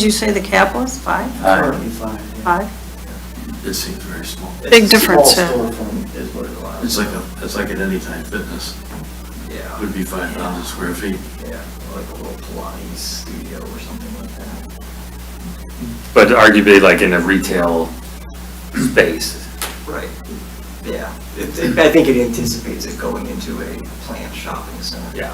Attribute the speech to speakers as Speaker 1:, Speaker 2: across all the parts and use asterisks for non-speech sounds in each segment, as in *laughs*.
Speaker 1: Did you say the cap was five?
Speaker 2: Uh,
Speaker 3: Currently five, yeah.
Speaker 1: Five?
Speaker 2: It seems very small.
Speaker 3: It's
Speaker 1: Big
Speaker 3: a small
Speaker 1: difference, yeah.
Speaker 3: storefront is what it allows.
Speaker 2: It's like a, it's like at Anytime Fitness,
Speaker 3: Yeah.
Speaker 2: would be 5,000 square feet.
Speaker 3: Yeah, like a little Pilates studio or something like that.
Speaker 4: But arguably like in a retail space.
Speaker 3: Right. Yeah, It- it- I think it anticipates it going into a planned shopping center.
Speaker 4: Yeah.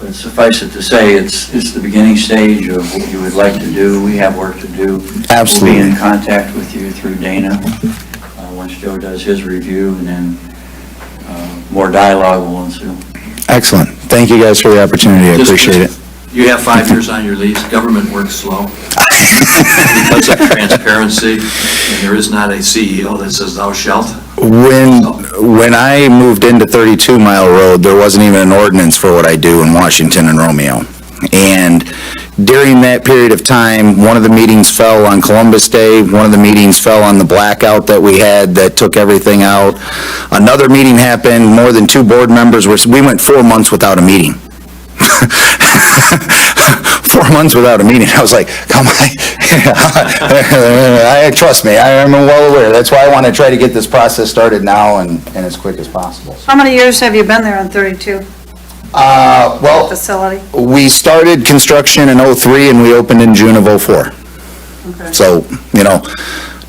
Speaker 5: But suffice it to say, it's, it's the beginning stage of what you would like to do. We have work to do.
Speaker 6: Absolutely.
Speaker 5: We'll be in contact with you through Dana, uh, once Joe does his review, and then uh, more dialogue will ensue.
Speaker 6: Excellent. Thank you guys for the opportunity. I
Speaker 2: Just-
Speaker 6: appreciate it.
Speaker 2: You have five years on your lease, government works slow. Because of transparency, and there is not a CEO that says thou shalt.
Speaker 6: When, when I moved into 32 Mile Road, there wasn't even an ordinance for what I do in Washington and Romeo. And during that period of time, one of the meetings fell on Columbus Day, one of the meetings fell on the blackout that we had that took everything out. Another meeting happened, more than two board members were, we went four months without a meeting. four months without a meeting. *laughs* I was like, come on. I, trust me, I am well aware. That's why I want to try to get this process started now and, and as quick as possible.
Speaker 1: How many years have you been there on 32
Speaker 6: Uh, well,
Speaker 1: facility?
Speaker 6: we started construction in '03 and we opened in June of '04.
Speaker 1: Okay.
Speaker 6: So, you know,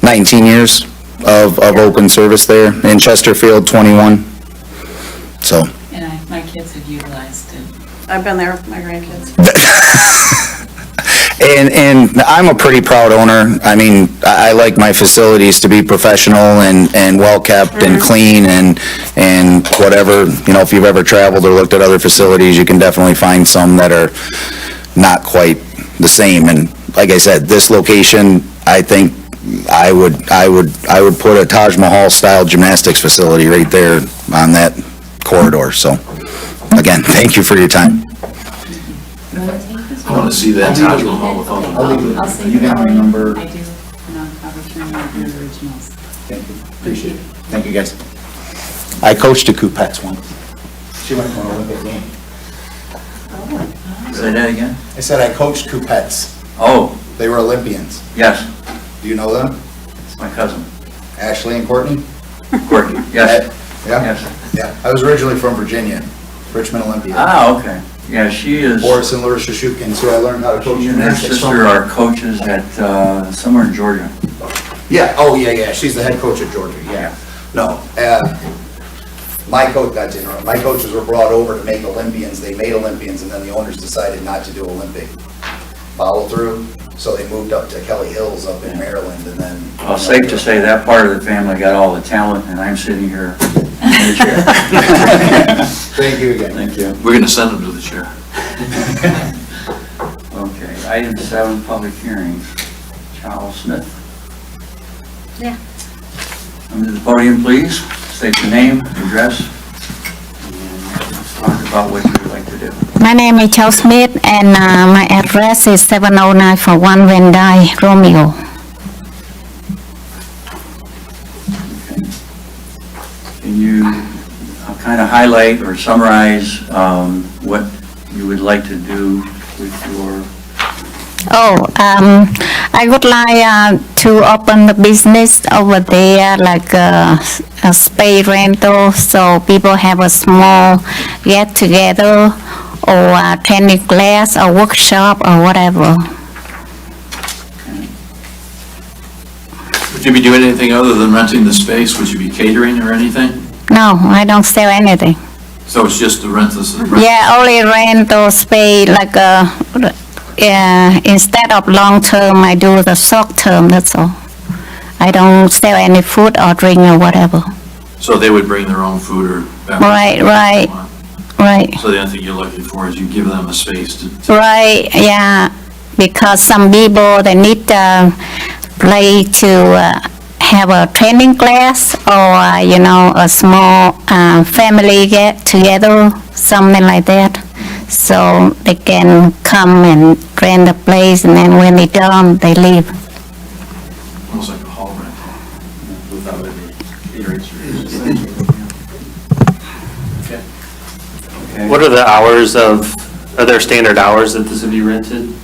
Speaker 6: 19 years of, of open service there. In Chesterfield, 21. So,
Speaker 7: And I, my kids have utilized it.
Speaker 1: I've been there with my grandkids.
Speaker 6: And, and I'm a pretty proud owner. I mean, I, I like my facilities to be professional and, and well-kept and clean and, and whatever. You know, if you've ever traveled or looked at other facilities, you can definitely find some that are not quite the same. And like I said, this location, I think I would, I would, I would put a Taj Mahal-style gymnastics facility right there on that corridor. So, again, thank you for your time.
Speaker 2: I want to see that Taj Mahal with all the...
Speaker 7: I'll say.
Speaker 5: You got my number.
Speaker 7: I do, and I'll, I'll return you the originals.
Speaker 6: Appreciate it. Thank you, guys. I coached a Coupettes once. She went to an Olympic game.
Speaker 5: Say that again?
Speaker 6: I said I coached Coupettes.
Speaker 5: Oh,
Speaker 6: They were Olympians.
Speaker 5: yes,
Speaker 6: Do you know them?
Speaker 5: it's my cousin,
Speaker 6: Ashley and Courtney?
Speaker 5: Courtney, yes,
Speaker 6: Yeah?
Speaker 5: yes.
Speaker 6: Yeah. I was originally from Virginia, Richmond Olympia.
Speaker 5: Ah, okay, yeah, she is,
Speaker 6: Boris and Laura Shashukkin, so I learned how to coach
Speaker 5: she and her
Speaker 6: gymnastics.
Speaker 5: sister
Speaker 6: from-
Speaker 5: are coaches at, uh, somewhere in Georgia.
Speaker 6: Yeah, oh, yeah, yeah, she's the head coach at Georgia, yeah. No, uh, my coach, not general, my coaches were brought over to make Olympians, they made Olympians, and then the owners decided not to do Olympic follow through, so they moved up to Kelly Hills up in Maryland, and then.
Speaker 5: Well, safe to say that part of the family got all the talent, and I'm sitting here in the chair.
Speaker 6: *laughs* Thank you again.
Speaker 5: Thank you.
Speaker 2: We're going to send him to the chair.
Speaker 5: Okay, item seven, public hearings. Charles Smith.
Speaker 1: Yeah.
Speaker 5: Come to the podium, please. State your name, address, and let's talk about what you'd like to do.
Speaker 8: My name is Charles Smith, and uh, my address is 70941 Van Dyke, Romeo.
Speaker 5: Can you kind of highlight or summarize um, what you would like to do with your,
Speaker 8: Oh, um, I would like uh, to open the business over there, like uh, a space rental, so people have a small get-together or uh, tennis class or workshop or whatever.
Speaker 2: Would you be doing anything other than renting the space? Would you be catering or anything?
Speaker 8: No, I don't sell anything.
Speaker 2: So it's just to rent this,
Speaker 8: Yeah, only rental space, like, uh, yeah, instead of long term, I do the short term, that's all. I don't sell any food or drink or whatever.
Speaker 2: so they would bring their own food or beverage?
Speaker 8: Right, right. Right,
Speaker 2: So the only thing you're looking for is you give them a space to
Speaker 8: right, yeah, because some people, they need, uh, play to, uh, have a training class or, uh, you know, a small, uh, family get together, something like that. So they can come and rent the place and then when they done, they leave.
Speaker 2: almost like a hall rental without any caterers.
Speaker 5: okay?
Speaker 4: What are the hours of, are there standard hours that this would be rented?